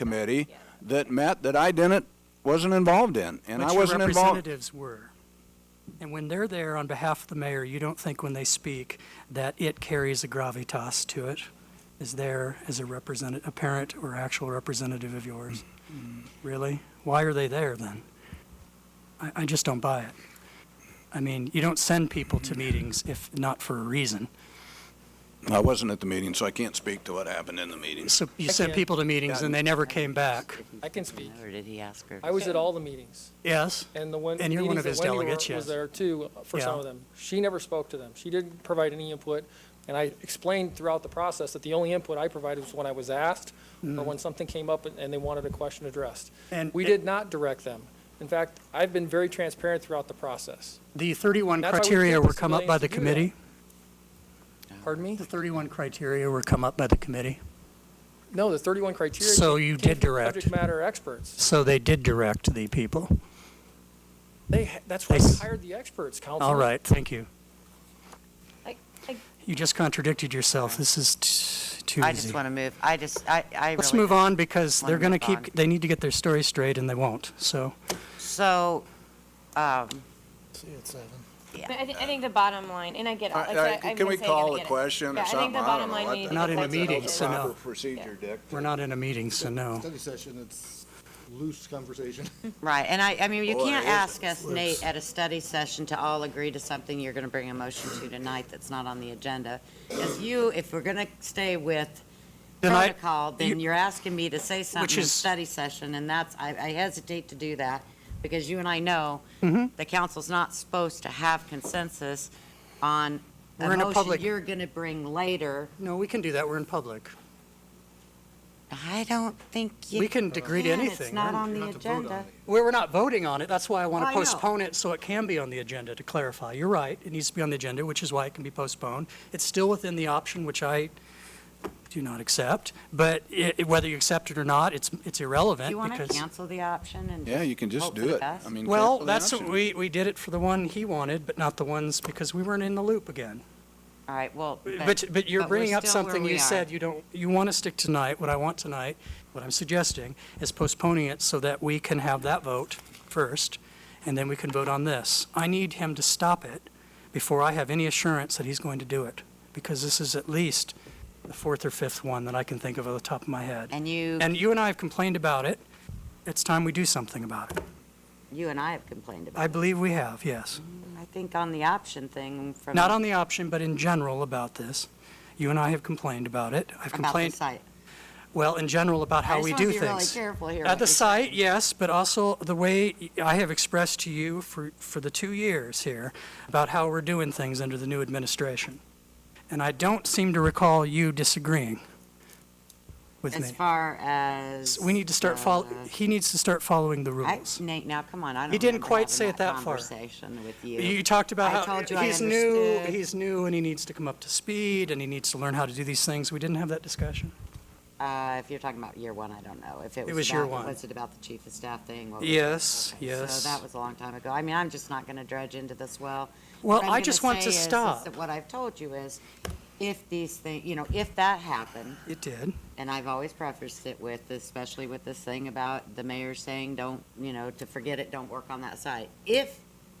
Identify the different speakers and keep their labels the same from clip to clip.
Speaker 1: committee that met that I didn't, wasn't involved in, and I
Speaker 2: What your
Speaker 1: wasn't involved.
Speaker 2: representatives were. And when they're there on behalf of the mayor, you don't think when they speak that it carries a gravitas to it, is there as a representative, a parent or actual representative of yours? Really? Why are they there then? I, I just don't buy it. I mean, you don't send people to meetings if not for a reason.
Speaker 1: I wasn't at the meeting, so I can't speak to what happened in the meeting.
Speaker 2: So you send
Speaker 3: Okay.
Speaker 2: people to meetings and they never came back.
Speaker 3: I can speak.
Speaker 4: Or did he ask her?
Speaker 3: I was at all the meetings,
Speaker 2: Yes?
Speaker 3: and the one,
Speaker 2: And you're one
Speaker 3: meetings
Speaker 2: of
Speaker 3: that
Speaker 2: his
Speaker 3: Wendy
Speaker 2: delegates,
Speaker 3: were-
Speaker 2: yes.
Speaker 3: was there too, for some
Speaker 2: Yeah.
Speaker 3: of them. She never spoke to them. She didn't provide any input, and I explained throughout the process that the only input I provided was when I was asked,
Speaker 2: Mm.
Speaker 3: or when something came up and- and they wanted a question addressed.
Speaker 2: And-
Speaker 3: We did not direct them. In fact, I've been very transparent throughout the process.
Speaker 2: The 31
Speaker 3: That's why we
Speaker 2: criteria
Speaker 3: give the
Speaker 2: were come up by
Speaker 3: civilians
Speaker 2: the
Speaker 3: to do that.
Speaker 2: committee?
Speaker 3: Pardon me?
Speaker 2: The 31 criteria were come up by the committee?
Speaker 3: No, the 31 criteria.
Speaker 2: So you
Speaker 3: came
Speaker 2: did
Speaker 3: from
Speaker 2: direct.
Speaker 3: Subject matter experts.
Speaker 2: So they did direct the people.
Speaker 3: They, ha- that's why
Speaker 2: They
Speaker 3: we
Speaker 2: s-
Speaker 3: hired the experts, Councilman.
Speaker 2: All right, thank you.
Speaker 5: I- I-
Speaker 2: You just contradicted yourself. This is t- too
Speaker 4: I
Speaker 2: easy.
Speaker 4: just want to move, I just, I, I really.
Speaker 2: Let's move on because
Speaker 4: wanna
Speaker 2: they're going to
Speaker 4: move on.
Speaker 2: keep, they need to get their story straight and they won't. So
Speaker 4: So, um,
Speaker 5: But I, th- I think the bottom line, and I get it.
Speaker 1: All
Speaker 5: Like,
Speaker 1: right,
Speaker 5: I- I've
Speaker 1: Can
Speaker 5: been
Speaker 1: we
Speaker 5: saying it, I
Speaker 1: call
Speaker 5: get
Speaker 1: a
Speaker 5: it.
Speaker 1: question
Speaker 5: Yeah,
Speaker 1: or
Speaker 5: I think
Speaker 1: something?
Speaker 5: the
Speaker 1: I don't
Speaker 5: bottom
Speaker 1: know.
Speaker 5: line,
Speaker 1: I
Speaker 5: we
Speaker 1: think
Speaker 5: need to
Speaker 2: Not
Speaker 5: get
Speaker 2: in a
Speaker 5: that to the
Speaker 2: meeting,
Speaker 5: judge.
Speaker 2: so no.
Speaker 1: Proper procedure, Dick.
Speaker 2: we're not in a meeting, so no.
Speaker 6: Study session, it's loose conversation.
Speaker 4: right, and I, I mean, you
Speaker 1: Boy,
Speaker 4: can't
Speaker 1: it
Speaker 4: ask us, Nate, at a study session to all agree to something you're going to bring a motion to tonight that's not on the agenda. Because you, if we're going to stay with
Speaker 2: Then I-
Speaker 4: protocol, then
Speaker 2: you-
Speaker 4: you're asking me to say something in
Speaker 2: is-
Speaker 4: study session, and that's, I, I hesitate to do that, because you and I know
Speaker 2: Mhm.
Speaker 4: the council's not supposed to have consensus on
Speaker 2: We're
Speaker 4: a
Speaker 2: in a
Speaker 4: motion
Speaker 2: public-
Speaker 4: you're going to bring later.
Speaker 2: No, we can do that. We're in public.
Speaker 4: I don't think you.
Speaker 2: We can agree to
Speaker 4: can. It's
Speaker 2: anything,
Speaker 4: not
Speaker 2: right?
Speaker 4: on the
Speaker 6: Not to vote on
Speaker 4: agenda.
Speaker 2: We're, we're not voting on it. That's why I want
Speaker 4: Well,
Speaker 2: to
Speaker 4: I know.
Speaker 2: postpone it so it can be on the agenda to clarify. You're right. It needs to be on the agenda, which is why it can be postponed. It's still within the option, which I do not accept, but i i- whether you accept it or not, it's, it's irrelevant
Speaker 4: Do you want to
Speaker 2: because.
Speaker 4: cancel the option and?
Speaker 1: Yeah, you can just
Speaker 4: hope for
Speaker 1: do
Speaker 4: the
Speaker 1: it.
Speaker 4: best?
Speaker 1: I mean, cancel
Speaker 2: Well,
Speaker 1: the
Speaker 2: that's, what
Speaker 1: option.
Speaker 2: we, we did it for the one he wanted, but not the ones, because we weren't in the loop again.
Speaker 4: All right, well.
Speaker 2: But, but you're
Speaker 4: but we're
Speaker 2: bringing up
Speaker 4: still where
Speaker 2: something
Speaker 4: we
Speaker 2: you
Speaker 4: are.
Speaker 2: said you don't, you want to stick tonight, what I want tonight, what I'm suggesting is postponing it so that we can have that vote first, and then we can vote on this. I need him to stop it before I have any assurance that he's going to do it, because this is at least the fourth or fifth one that I can think of off the top of my head.
Speaker 4: And you,
Speaker 2: And you and I have complained about it. It's time we do something about it.
Speaker 4: you and I have complained about it.
Speaker 2: I believe we have, yes.
Speaker 4: I think on the option thing from.
Speaker 2: Not on the option, but in general about this. You and I have complained about it. I've
Speaker 4: About the
Speaker 2: complained,
Speaker 4: site.
Speaker 2: well, in general about how we do
Speaker 4: I just want to
Speaker 2: things.
Speaker 4: be really careful here.
Speaker 2: At
Speaker 4: what
Speaker 2: the
Speaker 4: we say.
Speaker 2: site, yes, but also the way I have expressed to you for, for the two years here about how we're doing things under the new administration. And I don't seem to recall you disagreeing with
Speaker 4: As
Speaker 2: me.
Speaker 4: far as.
Speaker 2: So We need to start fol,
Speaker 4: uh,
Speaker 2: he needs to start following the
Speaker 4: I,
Speaker 2: rules.
Speaker 4: Nate, now, come on, I don't.
Speaker 2: He didn't
Speaker 4: remember
Speaker 2: quite
Speaker 4: having
Speaker 2: say it that far.
Speaker 4: Conversation with you.
Speaker 2: You talked about
Speaker 4: I
Speaker 2: how
Speaker 4: told you I
Speaker 2: he's new,
Speaker 4: understood.
Speaker 2: he's new, and he needs to come up to speed, and he needs to learn how to do these things. We didn't have that discussion.
Speaker 4: Uh, if you're talking about year one, I don't know. If it was.
Speaker 2: was year
Speaker 4: about-
Speaker 2: one.
Speaker 4: Was it about the chief of staff thing? What was it?
Speaker 2: Yes,
Speaker 4: Okay,
Speaker 2: yes.
Speaker 4: So that was a long time ago. I mean, I'm just not going to dredge into this well.
Speaker 2: Well,
Speaker 4: What I'm
Speaker 2: I just
Speaker 4: gonna
Speaker 2: want
Speaker 4: say
Speaker 2: to
Speaker 4: is- is
Speaker 2: stop.
Speaker 4: that What I've told you is, if these things, you know, if that happened,
Speaker 2: It did.
Speaker 4: and I've always prefaced it with, especially with this thing about the mayor saying, don't, you know, to forget it, don't work on that site. If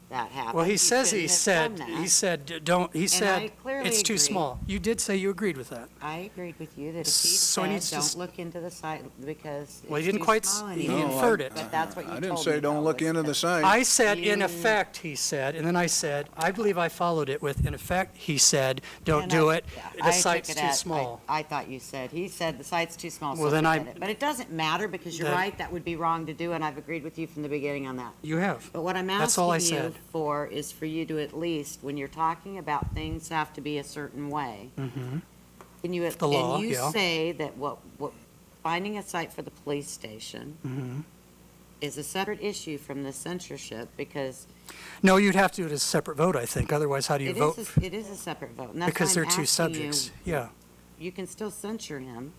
Speaker 4: that happened.
Speaker 2: Well, he
Speaker 4: you
Speaker 2: says he
Speaker 4: shouldn't have
Speaker 2: said,
Speaker 4: done
Speaker 2: he
Speaker 4: that.
Speaker 2: said, "D- don't, he
Speaker 4: I
Speaker 2: said,
Speaker 4: clearly
Speaker 2: it's too
Speaker 4: agree.
Speaker 2: small. You did say you agreed with that.
Speaker 4: I agreed with you that if he
Speaker 2: So he
Speaker 4: said,
Speaker 2: needs to s-
Speaker 4: don't look into the site because
Speaker 2: Well, he
Speaker 4: it's
Speaker 2: didn't
Speaker 4: too
Speaker 2: quite s-
Speaker 4: small
Speaker 2: he
Speaker 4: anymore,"
Speaker 2: inferred it.
Speaker 4: But that's what you
Speaker 1: I
Speaker 4: told me.
Speaker 1: didn't say don't
Speaker 4: though,
Speaker 1: look
Speaker 4: was
Speaker 1: into
Speaker 4: that-
Speaker 1: the site.
Speaker 2: I said, in
Speaker 4: You-
Speaker 2: effect, he said, and then I said, I believe I followed it with, in effect, he said, don't
Speaker 4: And
Speaker 2: do
Speaker 4: I-
Speaker 2: it,
Speaker 4: yeah, I
Speaker 2: the
Speaker 4: took
Speaker 2: site's
Speaker 4: it
Speaker 2: too
Speaker 4: at- I-
Speaker 2: small.
Speaker 4: I thought you said, he said the site's too small, so
Speaker 2: Well, then I-
Speaker 4: forget it. But it doesn't matter, because you're
Speaker 2: That-
Speaker 4: right, that would be wrong to do, and I've agreed with you from the beginning on that.
Speaker 2: You have.
Speaker 4: But what I'm
Speaker 2: That's all I
Speaker 4: asking you
Speaker 2: said.
Speaker 4: for is for you to at least, when you're talking about things have to be a certain way, can you,
Speaker 2: Mm-hmm. The law,
Speaker 4: can you
Speaker 2: yeah.
Speaker 4: say that what, what, finding a site for the police station is a separate issue from the censorship, because
Speaker 2: No, you'd have to do it as a separate vote, I think. Otherwise, how do you
Speaker 4: it
Speaker 2: vote?
Speaker 4: is, a- it is a separate vote, and that's why
Speaker 2: Because they're
Speaker 4: I'm
Speaker 2: two
Speaker 4: asking you,
Speaker 2: subjects. Yeah.
Speaker 4: You can still censure him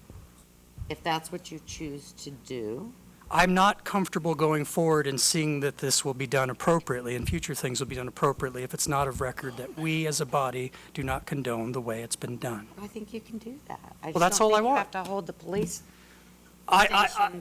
Speaker 4: if that's what you choose to do.
Speaker 2: I'm not comfortable going forward and seeing that this will be done appropriately and future things will be done appropriately if it's not of record that we as a body do not condone the way it's been done.
Speaker 4: I think you can do that. I
Speaker 2: Well, that's
Speaker 4: just don't
Speaker 2: all I
Speaker 4: think you
Speaker 2: want.
Speaker 4: have to hold the police
Speaker 2: I, I, I,
Speaker 4: station